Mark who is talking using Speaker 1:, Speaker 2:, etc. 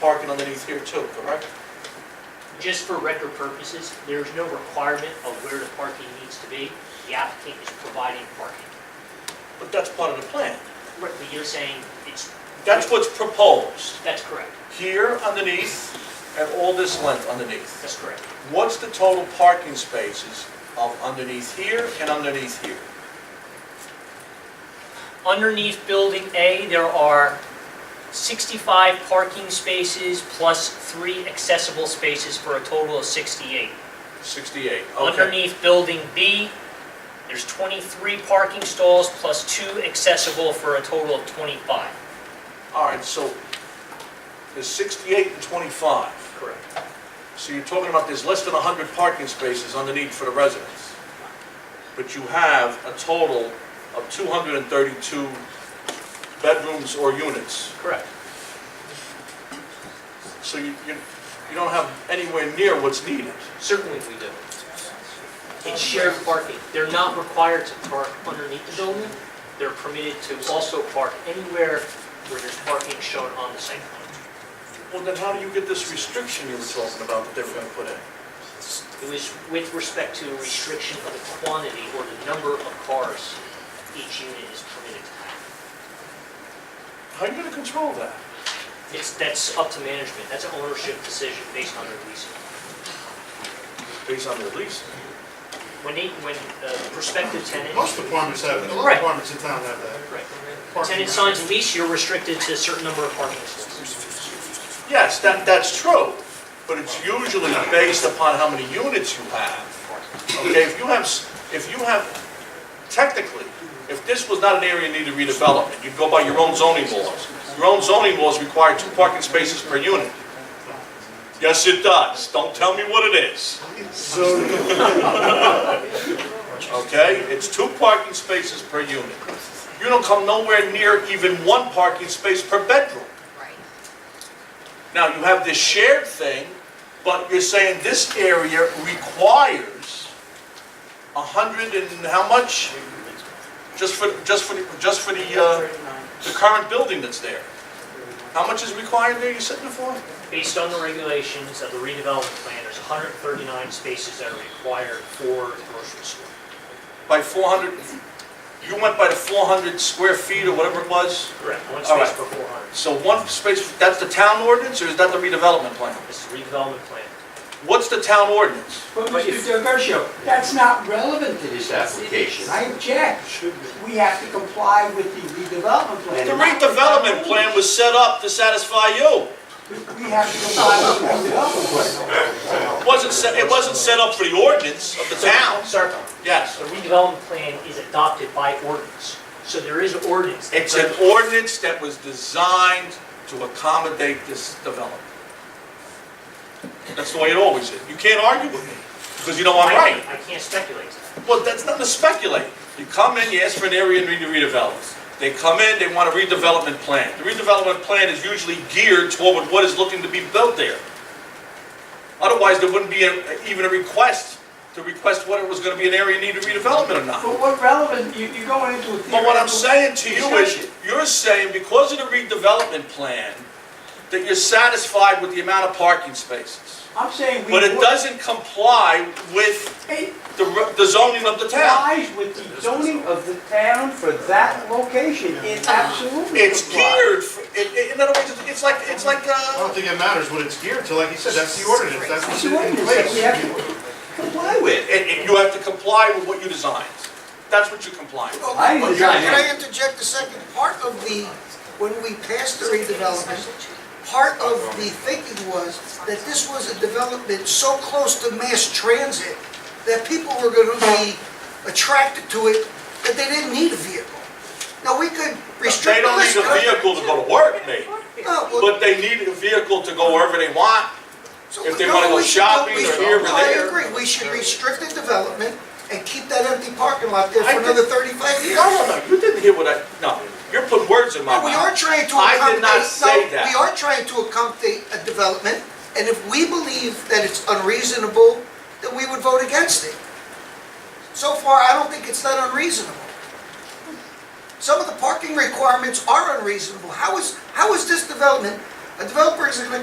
Speaker 1: parking underneath here too, correct?
Speaker 2: Just for record purposes, there is no requirement of where the parking needs to be. The applicant is providing parking.
Speaker 1: But that's part of the plan.
Speaker 2: But you're saying it's,
Speaker 1: That's what's proposed.
Speaker 2: that's correct,
Speaker 1: Here underneath and all this length underneath.
Speaker 2: that's correct.
Speaker 1: What's the total parking spaces of underneath here and underneath here?
Speaker 2: Underneath Building A, there are 65 parking spaces plus three accessible spaces for a total of 68.
Speaker 1: 68, okay.
Speaker 2: Underneath Building B, there's 23 parking stalls plus two accessible for a total of 25.
Speaker 1: All right, so there's 68 and 25.
Speaker 2: Correct.
Speaker 1: So you're talking about there's less than 100 parking spaces underneath for the residents. But you have a total of 232 bedrooms or units.
Speaker 2: Correct.
Speaker 1: So you, you you don't have anywhere near what's needed.
Speaker 2: Certainly we do. It's shared parking. They're not required to park underneath the building. They're permitted to also park anywhere where there's parking shown on the site plan.
Speaker 1: Well, then how do you get this restriction you were talking about that they were going to put in?
Speaker 2: It was with respect to a restriction of the quantity or the number of cars each unit is permitted to have.
Speaker 1: How are you going to control that?
Speaker 2: It's, that's up to management. That's an ownership decision based on their leasing.
Speaker 1: Based on their lease?
Speaker 2: When they, when the prospective tenant.
Speaker 3: Most apartments have that, a lot
Speaker 2: Right.
Speaker 3: of apartments in town have that.
Speaker 2: Right.
Speaker 3: Parking
Speaker 2: Tenant
Speaker 3: lot.
Speaker 2: signs a lease, you're restricted to a certain number of parking spaces.
Speaker 1: Yes, that, that's true, but it's usually based upon how many units you have. Okay, if you have, s- if you have, technically, if this was not an area needed redevelopment, you'd go by your own zoning laws. Your own zoning laws require two parking spaces per unit. Yes, it does, don't tell me what it is. Okay, it's two parking spaces per unit. You don't come nowhere near even one parking space per bedroom.
Speaker 4: Right.
Speaker 1: Now, you have this shared thing, but you're saying this area requires a hundred and how much? Just for, just for, the- just for the, uh, the current building that's there. How much is required there, you said before?
Speaker 2: Based on the regulations of the redevelopment plan, there's 139 spaces that are required for the grocery store.
Speaker 1: By four hundred, you went by the four hundred square feet or whatever it was?
Speaker 2: Correct. One
Speaker 1: All right.
Speaker 2: space per 400.
Speaker 1: So one space, that's the town ordinance, or is that the redevelopment plan?
Speaker 2: This is redevelopment plan.
Speaker 1: What's the town ordinance?
Speaker 5: But Mr. DeGarcio, that's not relevant to this application. I object. We have to comply with the redevelopment plan.
Speaker 1: The redevelopment plan was set up to satisfy you.
Speaker 5: We have to comply with the redevelopment plan.
Speaker 1: It wasn't set, it wasn't set up for the ordinance of the town.
Speaker 2: Sir,
Speaker 1: Yes.
Speaker 2: the redevelopment plan is adopted by ordinance. So there is an ordinance. that
Speaker 1: It's an
Speaker 2: governs-
Speaker 1: ordinance that was designed to accommodate this development. That's the way it always is. You can't argue with me, because you know I'm
Speaker 2: I-
Speaker 1: right.
Speaker 2: I can't speculate.
Speaker 1: Well, that's not to speculate. You come in, you ask for an area and you redevelop. They come in, they want a redevelopment plan. The redevelopment plan is usually geared toward what is looking to be built there. Otherwise, there wouldn't be a- even a request to request whether it was gonna be an area needed redevelopment or not.
Speaker 5: But what relevant, you- you're going into a theoretical...
Speaker 1: But what I'm saying to you is,
Speaker 5: discussion.
Speaker 1: you're saying because of the redevelopment plan, that you're satisfied with the amount of parking spaces.
Speaker 5: I'm saying we...
Speaker 1: But it doesn't comply with
Speaker 5: It
Speaker 1: the re- the zoning of the town.
Speaker 5: complies with the zoning of the town for that location. It absolutely
Speaker 1: It's
Speaker 5: complies.
Speaker 1: geared, for- it- it- in other words, it's- it's like, it's like,
Speaker 3: I
Speaker 1: uh,
Speaker 3: don't think it matters what it's geared to, like you said, that's the ordinance, that's
Speaker 5: It's
Speaker 3: what's in
Speaker 5: the ordinance that we have
Speaker 3: place.
Speaker 5: to comply with.
Speaker 1: it- it- you have to comply with what you designed. That's what you comply with.
Speaker 5: I
Speaker 6: Well,
Speaker 5: design
Speaker 6: Can I
Speaker 5: it.
Speaker 6: interject a second? Part of the, when we passed the redevelopment, part of the thinking was that this was a development so close to mass transit that people were gonna be attracted to it, that they didn't need a vehicle. Now, we could
Speaker 1: They
Speaker 6: restrict the
Speaker 1: don't need
Speaker 6: list.
Speaker 1: a vehicle to go to work, maybe,
Speaker 6: No, well,
Speaker 1: but they need a vehicle to go wherever they want.
Speaker 6: so
Speaker 1: if they
Speaker 6: no,
Speaker 1: wanna go
Speaker 6: we should go-
Speaker 1: shopping
Speaker 6: we
Speaker 1: or
Speaker 6: should-
Speaker 1: here or there.
Speaker 6: I agree, we should restrict the development and keep that empty parking lot there
Speaker 1: I
Speaker 6: for
Speaker 1: think-
Speaker 6: another thirty-five years.
Speaker 1: No, no, no, you didn't hear what I, no, you're putting words in my
Speaker 6: No,
Speaker 1: mouth.
Speaker 6: we are trying to
Speaker 1: I
Speaker 6: accommodate.
Speaker 1: did not say
Speaker 6: no,
Speaker 1: that.
Speaker 6: We are trying to accommodate a development, and if we believe that it's unreasonable, then we would vote against it. So far, I don't think it's that unreasonable. Some of the parking requirements are unreasonable. How is, how is this development, a developer is gonna